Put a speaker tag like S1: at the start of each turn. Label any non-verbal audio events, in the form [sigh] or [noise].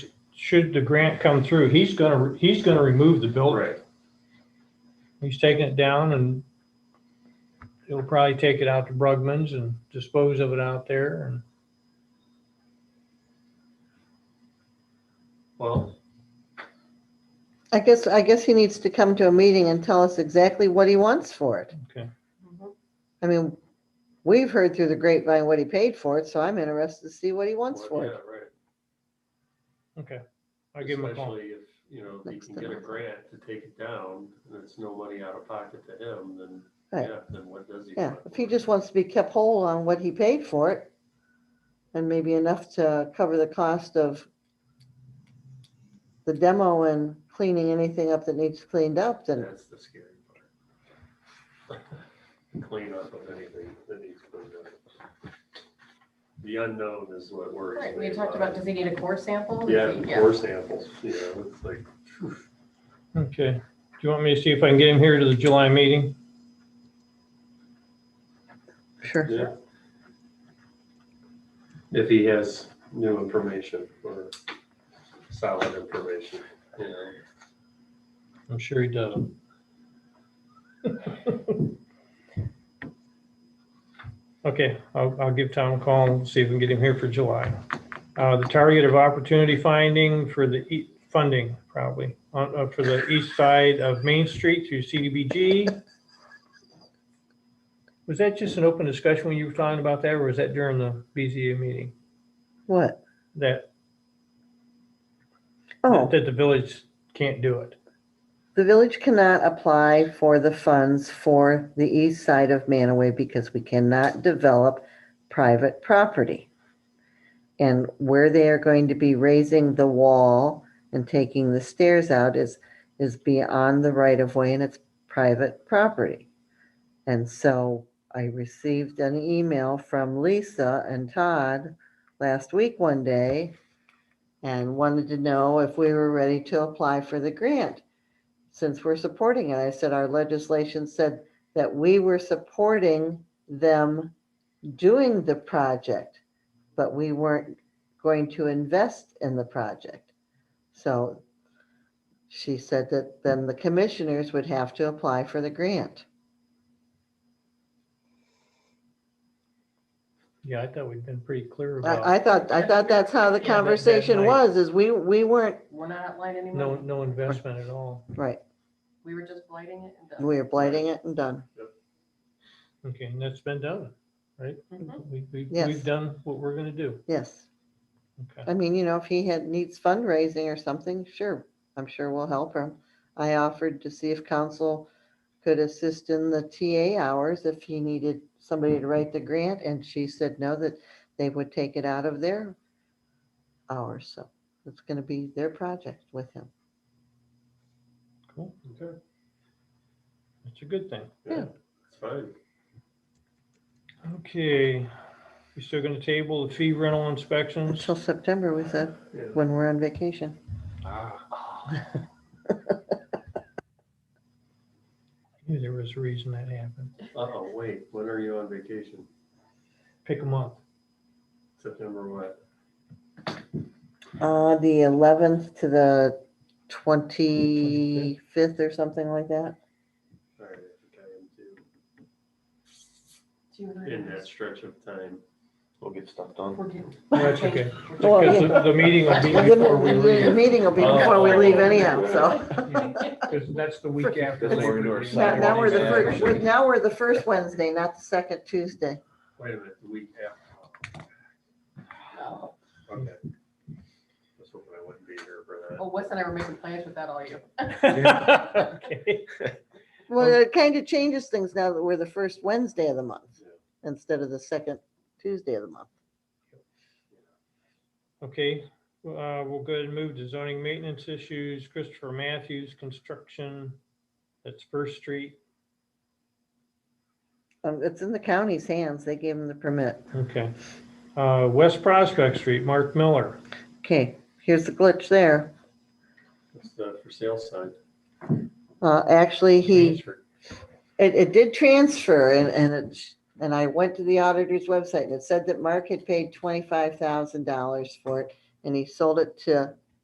S1: should the grant come through, he's gonna, he's gonna remove the building.
S2: Right.
S1: He's taking it down and he'll probably take it out to Brugman's and dispose of it out there and
S2: Well,
S3: I guess, I guess he needs to come to a meeting and tell us exactly what he wants for it.
S1: Okay.
S3: I mean, we've heard through the grapevine what he paid for it, so I'm interested to see what he wants
S2: well,
S3: for
S2: yeah,
S3: it.
S2: right.
S1: I'll give him a call.
S2: Especially if, you know, if he
S3: Next
S2: can get a
S3: time.
S2: grant to take it down and it's no money out of pocket to him, then,
S3: Right.
S2: yeah, then what does he?
S3: Yeah,
S2: want
S3: if
S2: for
S3: he
S2: it?
S3: just wants to be kept whole on what he paid for it, and maybe enough to cover the cost of the demo and cleaning anything up that needs cleaned up, then
S2: That's the scary part. [laughs] Clean up of anything that needs cleaned up. The unknown is what worries
S4: Right,
S2: me
S4: we had talked about, does he need a core sample?
S2: Yeah, the core samples, you know, it's like,
S1: Okay. Do you want me to see if I can get him here to the July meeting?
S3: sure.
S2: yeah. If he has new information or solid information, you know.
S1: I'm sure he does. [laughs] Okay, I'll, I'll give Tom a call and see if we can get him here for July. Uh, the target of opportunity finding for the e- funding probably, uh, uh, for the east side of Main Street through CDBG. Was that just an open discussion when you were talking about that, or was that during the BZA meeting?
S3: What?
S1: That,
S3: Oh.
S1: that the village can't do it?
S3: The village cannot apply for the funds for the east side of Manaway because we cannot develop private property. And where they are going to be raising the wall and taking the stairs out is, is beyond the right of way and it's private property. And so I received an email from Lisa and Todd last week one day and wanted to know if we were ready to apply for the grant since we're supporting it, I said our legislation said that we were supporting them doing the project, but we weren't going to invest in the project. So she said that then the commissioners would have to apply for the grant.
S1: Yeah, I thought we'd been pretty clear about.
S3: I, I thought, I thought that's how the
S4: Yeah, that- that
S3: conversation
S1: might-
S3: was, is we, we weren't,
S4: We're not lighting any
S1: No,
S4: money.
S1: no investment at all.
S3: right,
S4: We were just lighting it and done.
S3: we were blighting it and done.
S1: Okay, and that's been done, right?
S4: Mhm.
S1: We, we, we've
S3: Yes.
S1: done what we're gonna do.
S3: Yes.
S1: Okay.
S3: I mean, you know, if he had, needs fundraising or something, sure, I'm sure we'll help him. I offered to see if council could assist in the TA hours if he needed somebody to write the grant, and she said no, that they would take it out of their hours, so it's gonna be their project with him.
S1: Cool.
S2: Okay.
S1: That's a good thing.
S2: Yeah,
S3: Yeah.
S2: it's fine.
S1: Okay. You still gonna table the fee rental inspections?
S3: Until September, we said,
S2: Yeah.
S3: when we're on vacation.
S1: Ah. [laughs] Knew There was a reason that happened.
S2: Uh-oh, wait, when are you on vacation?
S1: Pick them up.
S2: September what?
S3: Uh, the eleventh to the twenty-fifth or something like that.
S2: All right, I think I
S4: Do you
S2: am too. In that
S4: know?
S2: stretch of time.
S5: We'll get stuff done.
S4: We're getting-
S1: That's okay.
S3: [laughs]
S4: We're
S3: Well,
S4: getting-
S1: Because the, the meeting will be
S3: And then
S1: before we
S3: and then The
S1: leave.
S3: meeting will be before we leave anyhow, so.
S1: [laughs] Because that's the week after.
S5: That's when we're
S1: Labor
S5: doing our
S1: Day.
S3: [laughs] Now, now we're the
S5: Yeah,
S3: first,
S5: sure.
S3: we're- now we're the first Wednesday, not the second Tuesday.
S2: Wait a minute, the week after.
S4: Oh,
S2: Okay. I was hoping I wouldn't be here for that.
S4: Well, Wes and I were making plans with that all year.
S1: [laughs] Okay.
S3: Well, it kind of changes things now that we're the first Wednesday of the month instead of the second Tuesday of the month.
S1: Okay, uh, we'll go ahead and move to zoning maintenance issues. Christopher Matthews Construction, that's First Street.
S3: Um, it's in the county's hands. They gave him the permit.
S1: Okay. Uh, West Prospect Street, Mark Miller.
S3: Okay, here's the glitch there.
S2: It's the for sale sign.
S3: Uh, actually, he.
S2: Transfer.
S3: It, it did transfer and, and it, sh- and I went to the auditor's website and it said that Mark had paid twenty-five thousand dollars for it and he sold it to